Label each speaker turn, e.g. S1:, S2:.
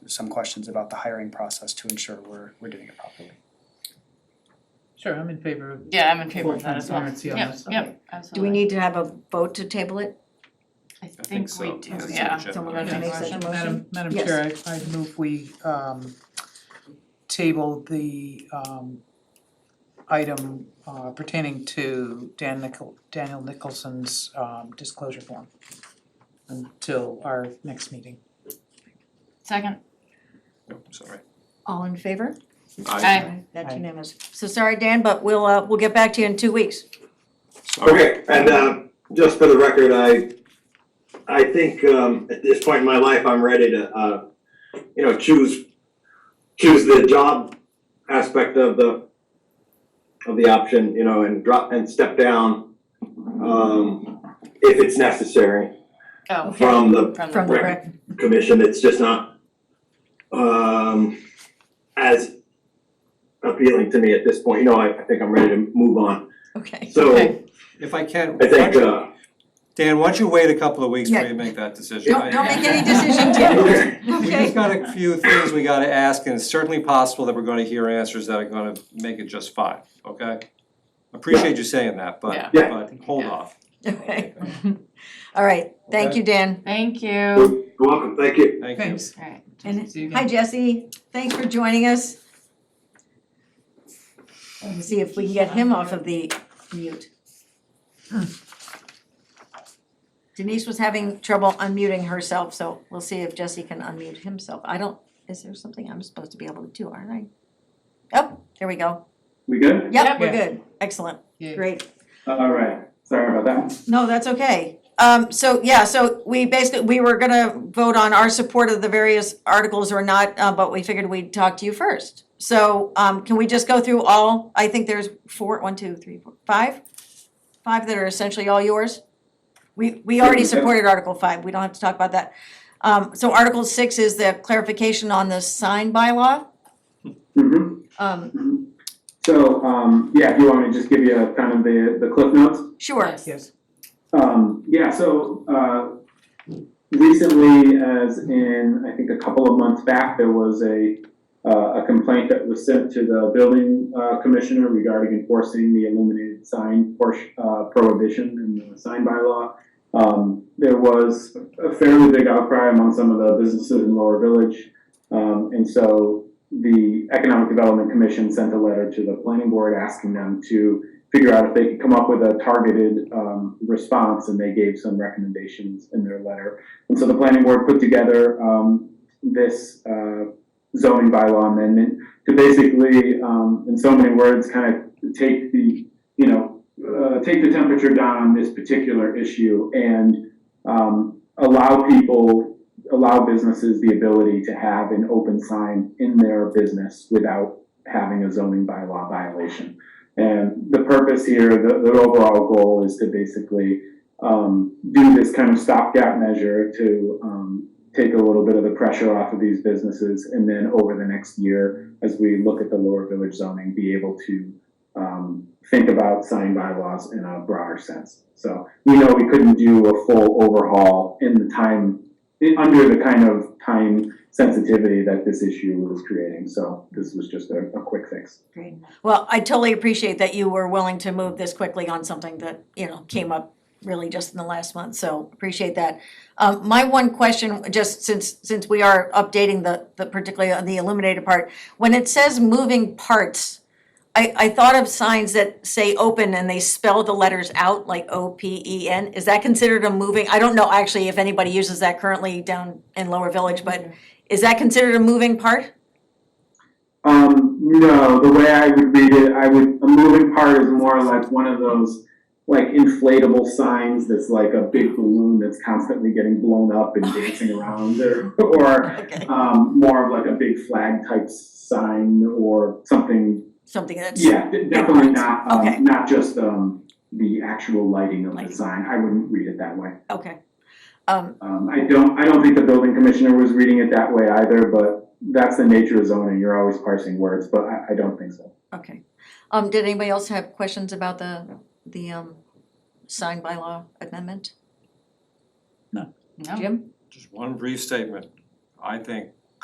S1: some questions about the hiring process to ensure we're, we're doing it properly.
S2: Sure, I'm in favor of
S3: Yeah, I'm in favor
S2: full
S3: of that as well.
S2: transparency on
S3: Yep,
S2: this.
S3: yep,
S4: Do we
S3: absolutely.
S4: need to have a vote to table it?
S3: I think we
S5: so.
S3: do,
S5: That's
S3: yeah.
S5: sufficient.
S4: Someone
S3: Yeah.
S4: wants to make such a motion?
S2: Madam, Madam
S4: Yes.
S2: Chair, I I move we um table the um item uh pertaining to Dan Nichol, Daniel Nicholson's um disclosure form until our next meeting.
S3: Second,
S5: Nope, sorry.
S4: All in favor?
S3: Aye.
S4: That's
S2: Aye.
S4: unanimous. So sorry, Dan, but we'll, uh, we'll get back to you in two weeks.
S5: Sorry.
S6: Okay, and um, just for the record, I, I think um, at this point in my life, I'm ready to, uh, you know, choose, choose the job aspect of the, of the option, you know, and drop, and step down um, if it's necessary
S3: oh,
S6: from the
S3: from
S4: From
S3: the,
S4: the
S6: Right.
S4: rec,
S6: commission, it's just not um as appealing to me at this point, you know, I I think I'm ready to move on.
S4: okay.
S6: So
S3: Okay.
S6: I
S5: If I can,
S6: think uh
S5: Dan, why don't you wait a couple of weeks
S4: Yeah.
S5: before you make that decision?
S4: Don't,
S5: I-
S4: don't make any decision, Tim,
S5: We just
S4: okay?
S5: got a few things we gotta ask, and it's certainly possible that we're gonna hear answers that are gonna make it just fine, okay? Appreciate you saying that,
S3: Yeah.
S5: but,
S6: Yeah.
S5: but hold
S3: Yeah.
S5: off.
S4: Okay, all right, thank you, Dan.
S3: thank you.
S6: you're welcome, thank you.
S5: Thank you.
S2: Thanks.
S3: Alright,
S4: And
S2: See you
S4: hi,
S2: again.
S4: Jesse, thanks for joining us. Let's See if we can get him off of the mute. Denise was having trouble unmuting herself, so we'll see if Jesse can unmute himself. I don't, is there something I'm supposed to be able to do, aren't I? Oh, there we go.
S7: We good?
S4: Yep, we're
S2: Yeah.
S4: good. Excellent.
S2: Yay.
S4: Great.
S7: All right, sorry about that.
S4: No, that's okay. Um, so, yeah, so we basically, we were gonna vote on our support of the various articles or not, uh, but we figured we'd talk to you first. So, um, can we just go through all, I think there's four, one, two, three, four, five? Five that are essentially all yours? We, we already
S7: Yeah.
S4: supported Article five, we don't have to talk about that. Um, so Article six is the clarification on the sign bylaw.
S7: Mm-hmm.
S4: Um,
S7: So, um, yeah, if you want me to just give you a kind of the, the cliff notes?
S4: sure,
S3: Yes.
S2: Yes,
S7: Um, yeah, so, uh, recently, as in, I think a couple of months back, there was a, uh, a complaint that was sent to the building, uh, commissioner regarding enforcing the illuminated sign portion, uh, prohibition in the sign bylaw. Um, there was a fairly big outcry among some of the businesses in Lower Village. Um, and so the Economic Development Commission sent a letter to the planning board asking them to figure out if they could come up with a targeted um, response, and they gave some recommendations in their letter. And so the planning board put together um, this uh, zoning bylaw amendment to basically, um, in so many words, kind of take the, you know, uh, take the temperature down on this particular issue and um, allow people, allow businesses the ability to have an open sign in their business without having a zoning bylaw violation. And the purpose here, the, the overall goal is to basically um, do this kind of stopgap measure to um, take a little bit of the pressure off of these businesses. And then over the next year, as we look at the lower village zoning, be able to um, think about sign bylaws in a broader sense. So we know we couldn't do a full overhaul in the time, in, under the kind of time sensitivity that this issue was creating. So this was just a, a quick fix.
S4: well, I totally appreciate that you were willing to move this quickly on something that, you know, came up really just in the last month, so appreciate that. Um, my one question, just since, since we are updating the, the particularly on the illuminated part, when it says moving parts, I, I thought of signs that say open and they spell the letters out, like O P E N, is that considered a moving, I don't know actually if anybody uses that currently down in Lower Village, but is that considered a moving part?
S7: Um, no, the way I would read it, I would, a moving part is more like one of those, like inflatable signs that's like a big balloon that's constantly getting blown up and dancing around or, or,
S4: Okay,
S7: um, more of like a big flag type sign or something.
S4: something that's,
S7: Yeah, de- definitely not,
S4: Okay.
S7: um, not just, um, the actual lighting of
S4: Lighting.
S7: the sign, I wouldn't read it that way.
S4: okay. Um,
S7: Um, I don't, I don't think the building commissioner was reading it that way either, but that's the nature of zoning, you're always parsing words, but I, I don't think so.
S4: Okay. Um, did anybody else have questions about the, the, um, sign bylaw amendment?
S3: No.
S4: Jim?
S5: Just one brief statement. I think